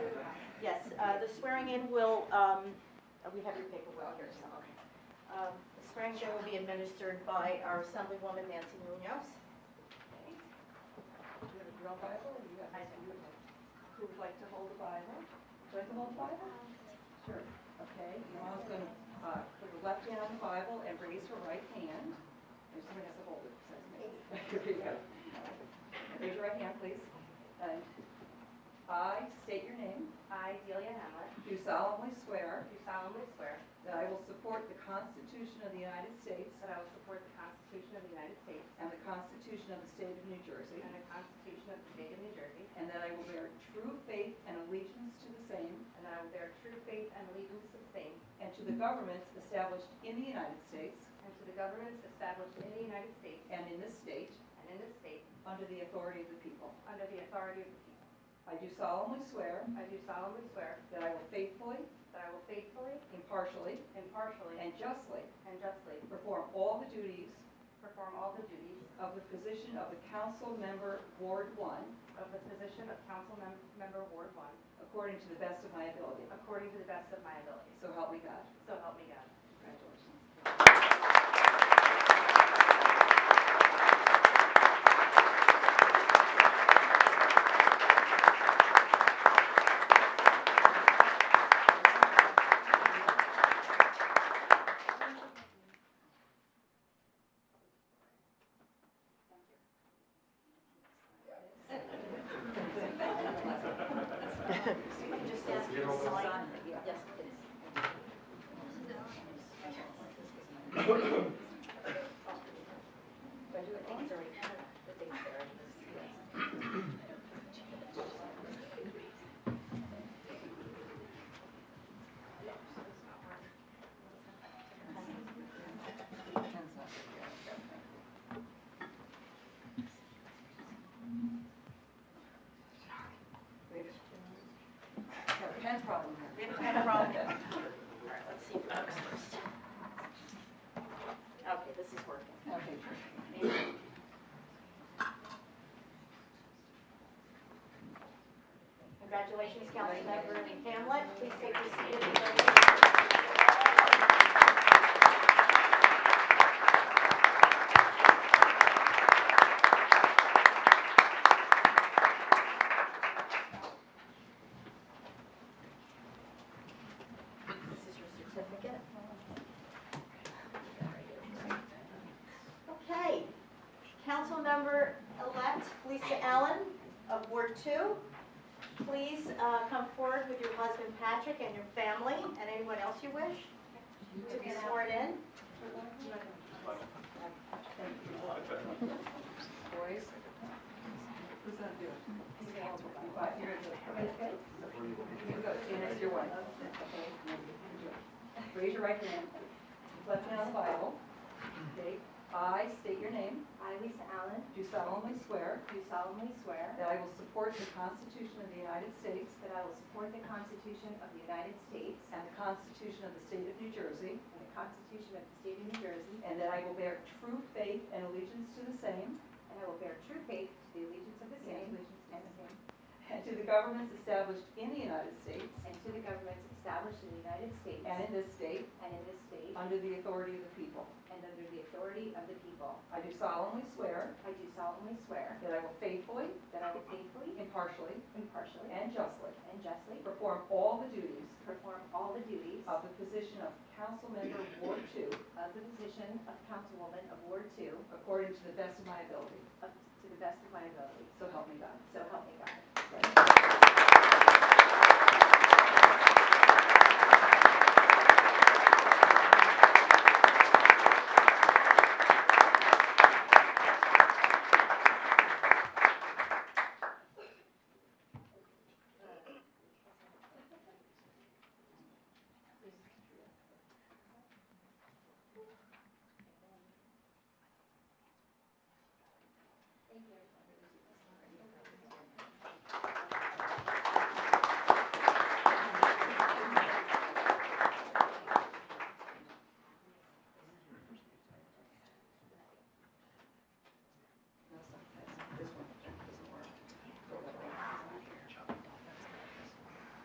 Uh, The swearing in will, um, oh, we have your paperwork here, so. Um, The swearing in will be administered by our Assemblywoman Nancy Munoz. Do you have a real Bible or you got? I do. Who would like to hold the Bible? Would you like to hold the Bible? Sure. Okay, Yvonne's going to uh, put her left hand on the Bible and raise her right hand. There's someone has to hold it besides me. Here you go. Raise your right hand, please. And I state your name, I, Delia Hamlet, do solemnly swear do solemnly swear that I will support the Constitution of the United States that I will support the Constitution of the United States and the Constitution of the State of New Jersey, and the Constitution of the State of New Jersey, and that I will bear true faith and allegiance to the same and that I will bear true faith and allegiance to the same And to the governments established in the United States and to the governments established in the United States and in this state, and in this state under the authority of the people. under the authority of the people. I do solemnly swear I do solemnly swear that I will faithfully, that I will faithfully, impartially, impartially, and justly and justly perform all the duties perform all the duties of the position of the council member, Ward 1, of the position of council mem- member Ward 1 according to the best of my ability. according to the best of my ability. So help me God. So help me God. Congratulations. Just ask you to sign. Yes, please. Do I do it? Thanks, Doreen. The date's there. Got a Pen problem here. We have a pen problem. All right, let's see if it works first. Okay, this is working. Okay, Congratulations, Councilmember Hamlet. Please take your seat. This is your certificate. Okay. Councilmember-elect Lisa Allen of Ward Two. Please uh, come forward with your husband Patrick and your family and anyone else you wish to be sworn in. boys. Who's that doing? You buy- you're gonna do it. Okay, good. You go, stand next to your wife. Okay, you do it. Raise your right hand. Left hand on the Bible. Okay, I state your name. I, Lisa Allen, Do solemnly swear do solemnly swear that I will support the Constitution of the United States that I will support the Constitution of the United States and the Constitution of the State of New Jersey, And the Constitution of the State of New Jersey. and that I will bear true faith and allegiance to the same And I will bear true faith to the allegiance of the same. And the same. and to the governments established in the United States And to the governments established in the United States. and in this state and in this state. under the authority of the people. And under the authority of the people. I do solemnly swear I do solemnly swear. That I will faithfully, That I will faithfully, impartially, impartially, and justly and justly. perform all the duties Perform all the duties. of the position of council member Ward Two Of the position of Councilwoman of Ward Two. according to the best of my ability. Up to the best of my ability. So help me God. So help me God.